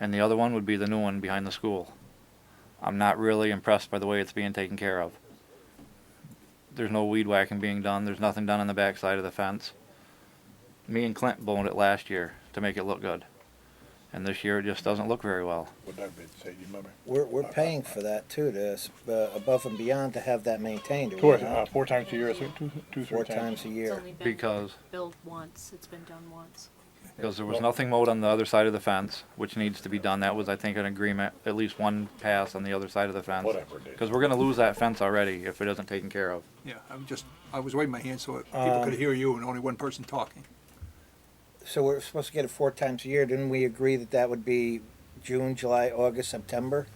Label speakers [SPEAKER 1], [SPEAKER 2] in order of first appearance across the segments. [SPEAKER 1] and the other one would be the new one behind the school. I'm not really impressed by the way it's being taken care of. There's no weed whacking being done. There's nothing done on the backside of the fence. Me and Clint boned it last year to make it look good, and this year it just doesn't look very well.
[SPEAKER 2] Would that be, say, you remember?
[SPEAKER 3] We're, we're paying for that too, to, s- uh, above and beyond to have that maintained, are
[SPEAKER 2] Two,
[SPEAKER 3] we
[SPEAKER 2] or- uh,
[SPEAKER 3] not?
[SPEAKER 2] four times a year, so two, two,
[SPEAKER 3] Four
[SPEAKER 2] three times.
[SPEAKER 3] times a
[SPEAKER 4] It's
[SPEAKER 3] year.
[SPEAKER 4] only been
[SPEAKER 1] Because
[SPEAKER 4] billed once, it's been done once.
[SPEAKER 1] Because there was nothing mowed on the other side of the fence, which needs to be done. That was, I think, an agreement, at least one pass on the other side of the fence.
[SPEAKER 2] Whatever it is.
[SPEAKER 1] Because we're gonna lose that fence already if it isn't taken care of.
[SPEAKER 5] Yeah, I'm just, I was waving my hand so that people
[SPEAKER 2] Um,
[SPEAKER 5] could hear you and only one person talking.
[SPEAKER 3] So we're supposed to get it four times a year, didn't we agree that that would be June, July, August, September?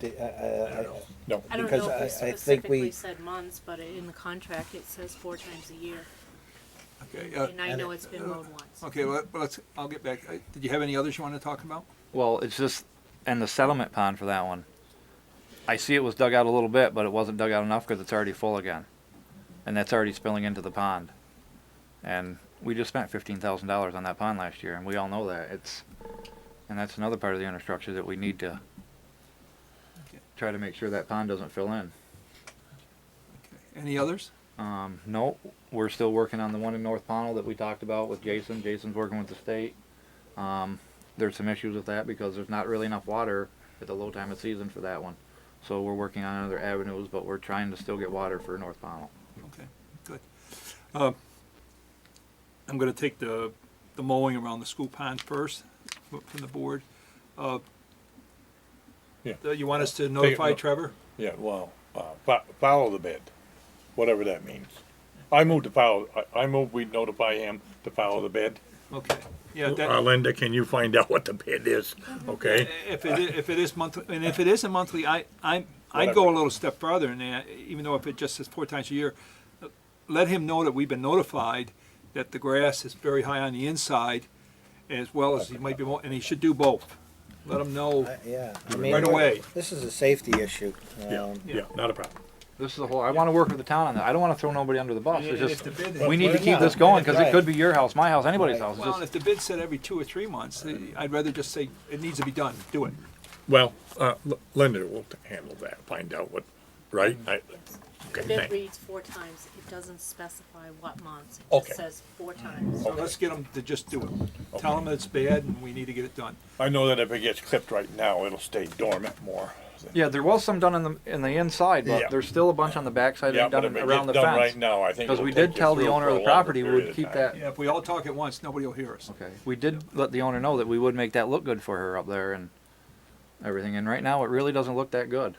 [SPEAKER 3] The- uh, uh, I-
[SPEAKER 2] No,
[SPEAKER 4] I don't
[SPEAKER 3] Because
[SPEAKER 4] know
[SPEAKER 3] I-
[SPEAKER 4] if
[SPEAKER 3] I
[SPEAKER 4] we
[SPEAKER 3] think we-
[SPEAKER 4] specifically said months, but in the contract, it says four times a year.
[SPEAKER 5] Okay, uh,
[SPEAKER 4] And I
[SPEAKER 3] And
[SPEAKER 4] know
[SPEAKER 3] it-
[SPEAKER 4] it's been mowed once.
[SPEAKER 5] okay, well, let's, I'll get back. Uh, Did you have any others you wanted to talk about?
[SPEAKER 1] Well, it's just, and the settlement pond for that one. I see it was dug out a little bit, but it wasn't dug out enough because it's already full again. And that's already spilling into the pond. And we just spent fifteen thousand dollars on that pond last year, and we all know that. It's, and that's another part of the infrastructure that we need to
[SPEAKER 5] Okay.
[SPEAKER 1] try to make sure that pond doesn't fill in.
[SPEAKER 5] Okay. Any others?
[SPEAKER 1] Um, no, we're still working on the one in North Pownell that we talked about with Jason. Jason's working with the state. Um, there's some issues with that because there's not really enough water at the low time of season for that one. So we're working on other avenues, but we're trying to still get water for North Pownell.
[SPEAKER 5] Okay, good. Uh, I'm gonna take the, the mowing around the school pond first fro- from the board. Uh,
[SPEAKER 2] Yeah.
[SPEAKER 5] uh, You want us to notify
[SPEAKER 2] no-
[SPEAKER 5] Trevor?
[SPEAKER 2] yeah, well, uh, fo- follow the bid, whatever that means. I move to follow, I, I move we notify him to follow the bid.
[SPEAKER 5] Okay, yeah,
[SPEAKER 2] Uh,
[SPEAKER 5] that,
[SPEAKER 2] Linda, can you find out what the bid is, okay?
[SPEAKER 5] if it, i- if it is monthly, and if it isn't monthly, I, I, I'd go a
[SPEAKER 2] Whatever.
[SPEAKER 5] little step farther than that, even though if it just says four times a year. uh, Let him know that we've been notified that the grass is very high on the inside, as well as he might be, mo- and he should do both. Let him know,
[SPEAKER 3] I- Yeah. I mean,
[SPEAKER 5] Right away.
[SPEAKER 3] This is a safety issue.
[SPEAKER 2] Yeah,
[SPEAKER 3] um,
[SPEAKER 2] yeah, not a problem.
[SPEAKER 1] This is a whole, I wanna work with the town on that. I don't wanna throw nobody under the bus. It's
[SPEAKER 5] if the
[SPEAKER 1] just,
[SPEAKER 5] bid.
[SPEAKER 1] we need to
[SPEAKER 3] Well,
[SPEAKER 1] keep
[SPEAKER 3] no,
[SPEAKER 1] this going, cause it
[SPEAKER 3] right.
[SPEAKER 1] could be your house, my house, anybody's house. It's
[SPEAKER 5] Well,
[SPEAKER 1] just,
[SPEAKER 5] if the bid said every two or three months, eh, I'd rather just say, it needs to be done, do it.
[SPEAKER 2] Well, uh, L- Linda will handle that, find out what, right? I-
[SPEAKER 4] The
[SPEAKER 2] Okay,
[SPEAKER 4] bid
[SPEAKER 2] thank-
[SPEAKER 4] reads four times, it doesn't specify what months, it
[SPEAKER 2] Okay.
[SPEAKER 4] just says four times.
[SPEAKER 5] So let's get them to just do it. Tell them it's bad and we need to get it done.
[SPEAKER 2] I know that if it gets clipped right now, it'll stay dormant more.
[SPEAKER 1] yeah, there was some done in the, in the inside,
[SPEAKER 2] Yeah.
[SPEAKER 1] but there's still a bunch on the backside
[SPEAKER 2] Yeah,
[SPEAKER 1] and
[SPEAKER 2] but
[SPEAKER 1] done
[SPEAKER 2] if it
[SPEAKER 1] around
[SPEAKER 2] gets
[SPEAKER 1] the
[SPEAKER 2] done right
[SPEAKER 1] fence.
[SPEAKER 2] now, I think.
[SPEAKER 1] Cause
[SPEAKER 2] it'll
[SPEAKER 1] we
[SPEAKER 2] take
[SPEAKER 1] did
[SPEAKER 2] you
[SPEAKER 1] tell the
[SPEAKER 2] through
[SPEAKER 1] owner
[SPEAKER 2] for
[SPEAKER 1] of
[SPEAKER 2] a
[SPEAKER 1] the
[SPEAKER 2] longer
[SPEAKER 1] property we
[SPEAKER 2] period
[SPEAKER 1] would
[SPEAKER 2] of
[SPEAKER 1] keep
[SPEAKER 2] time.
[SPEAKER 1] that
[SPEAKER 5] Yeah, if we all talk at once, nobody will hear us.
[SPEAKER 1] Okay. We did let the owner know that we would make that look good for her up there and everything. And right now, it really doesn't look that good.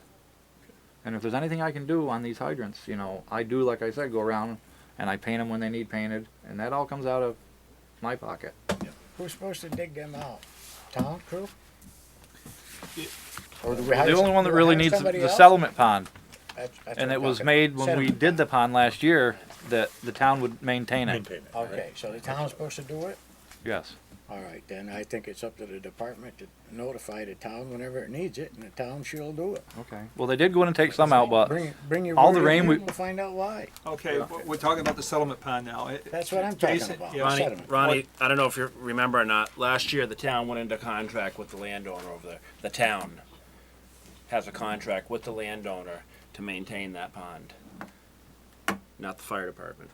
[SPEAKER 1] And if there's anything I can do on these hydrants, you know, I do, like I said, go around and I paint them when they need painted. And that all comes out of my pocket.
[SPEAKER 6] Who's supposed to dig them out? Town crew?
[SPEAKER 5] Yeah.
[SPEAKER 6] Or do we
[SPEAKER 1] The
[SPEAKER 6] hire
[SPEAKER 1] only
[SPEAKER 6] some-
[SPEAKER 1] one that
[SPEAKER 6] do we
[SPEAKER 1] really
[SPEAKER 6] hire
[SPEAKER 1] needs the-
[SPEAKER 6] somebody
[SPEAKER 1] the
[SPEAKER 6] else?
[SPEAKER 1] settlement pond.
[SPEAKER 6] That's- that's
[SPEAKER 1] And
[SPEAKER 6] what
[SPEAKER 1] it
[SPEAKER 6] I'm
[SPEAKER 1] was
[SPEAKER 6] talking.
[SPEAKER 1] made when we
[SPEAKER 6] Settlement.
[SPEAKER 1] did the pond last year that the town would maintain it.
[SPEAKER 2] Maintain it.
[SPEAKER 6] Okay, so the town's supposed to do it?
[SPEAKER 1] Yes.
[SPEAKER 6] All right, then I think it's up to the department to notify the town whenever it needs it, and the town she'll do it.
[SPEAKER 1] Okay. Well, they did go in and take some out, but
[SPEAKER 6] Bring, bring your.
[SPEAKER 1] all the
[SPEAKER 6] word in
[SPEAKER 1] rain
[SPEAKER 6] here
[SPEAKER 1] we-
[SPEAKER 6] and We'll find out why.
[SPEAKER 5] Okay, w- we're talking about the settlement pond now. It-
[SPEAKER 6] That's what I'm talking
[SPEAKER 5] Jason,
[SPEAKER 6] about.
[SPEAKER 5] yeah.
[SPEAKER 6] Ronnie-
[SPEAKER 7] Ronnie,
[SPEAKER 6] Sediment.
[SPEAKER 7] Ronnie, I don't know if you remember or not. Last year, the town went into contract with the landowner over there. The town has a contract with the landowner to maintain that pond, not the fire department.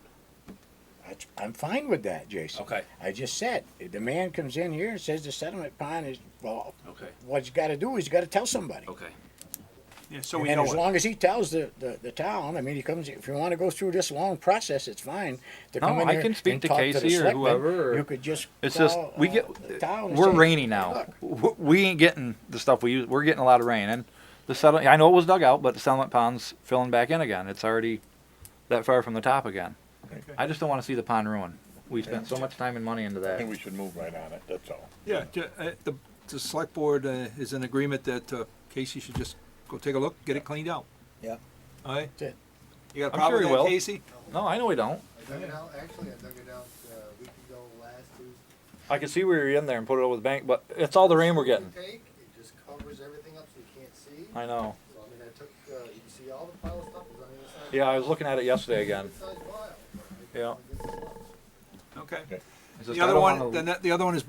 [SPEAKER 6] That's- I'm fine with that, Jason.
[SPEAKER 7] Okay.
[SPEAKER 6] I just said, if the man comes in here and says the sediment pond is, well,
[SPEAKER 7] Okay.
[SPEAKER 6] what he's gotta do is he's gotta tell
[SPEAKER 1] Oh,
[SPEAKER 6] somebody.
[SPEAKER 7] Okay.
[SPEAKER 5] Yeah, so we
[SPEAKER 6] And
[SPEAKER 5] know
[SPEAKER 6] as
[SPEAKER 5] it.
[SPEAKER 6] long as he tells the, the, the town, I mean, he comes, if you wanna go through this long process, it's fine. to
[SPEAKER 1] No,
[SPEAKER 6] come in
[SPEAKER 1] I
[SPEAKER 6] here
[SPEAKER 1] can speak
[SPEAKER 6] and
[SPEAKER 1] to
[SPEAKER 6] talk the
[SPEAKER 1] Casey or
[SPEAKER 6] selectmen,
[SPEAKER 1] whoever, or-
[SPEAKER 6] You could just.
[SPEAKER 1] It's just
[SPEAKER 6] call,
[SPEAKER 1] we
[SPEAKER 6] uh,
[SPEAKER 1] get
[SPEAKER 6] the town and
[SPEAKER 1] we're
[SPEAKER 6] say,
[SPEAKER 1] rainy
[SPEAKER 6] "Hey,
[SPEAKER 1] now.
[SPEAKER 6] look,
[SPEAKER 1] W- We ain't getting the stuff we use. We're getting a lot of rain, and the settlement. I know it was dug out, but the settlement pond's filling back in again. It's already that far from the top again. I just don't want to see the pond ruined. We spent so much time and money into
[SPEAKER 2] I
[SPEAKER 1] that.
[SPEAKER 2] think we should move right on it, that's all.
[SPEAKER 5] Yeah, ju- uh, the, the select board uh, is in agreement that uh, Casey should just go take a look, get it cleaned out.
[SPEAKER 3] Yeah.
[SPEAKER 5] All right?
[SPEAKER 6] That's it.
[SPEAKER 5] You got a
[SPEAKER 1] I'm
[SPEAKER 5] problem
[SPEAKER 1] sure
[SPEAKER 5] with
[SPEAKER 1] he
[SPEAKER 5] that,
[SPEAKER 1] will.
[SPEAKER 5] Casey?
[SPEAKER 1] No, I know we don't.
[SPEAKER 8] I dug it out, actually, I dug it out uh, a week ago last Tuesday.
[SPEAKER 1] I could see we were in there and put it over the bank, but it's all the rain we're getting.
[SPEAKER 8] Take, it just covers everything up so you can't see.
[SPEAKER 1] I know.
[SPEAKER 8] So I mean, I took, uh, you can see all the pile of stuff is on the inside.
[SPEAKER 1] Yeah, I was looking at it yesterday again.
[SPEAKER 8] Good sized pile.
[SPEAKER 1] Yeah.
[SPEAKER 8] Good sized pile.
[SPEAKER 5] Okay.
[SPEAKER 1] It's just
[SPEAKER 5] The
[SPEAKER 1] I
[SPEAKER 5] other
[SPEAKER 1] don't
[SPEAKER 5] one,
[SPEAKER 1] wanna-
[SPEAKER 5] the ne- the other one is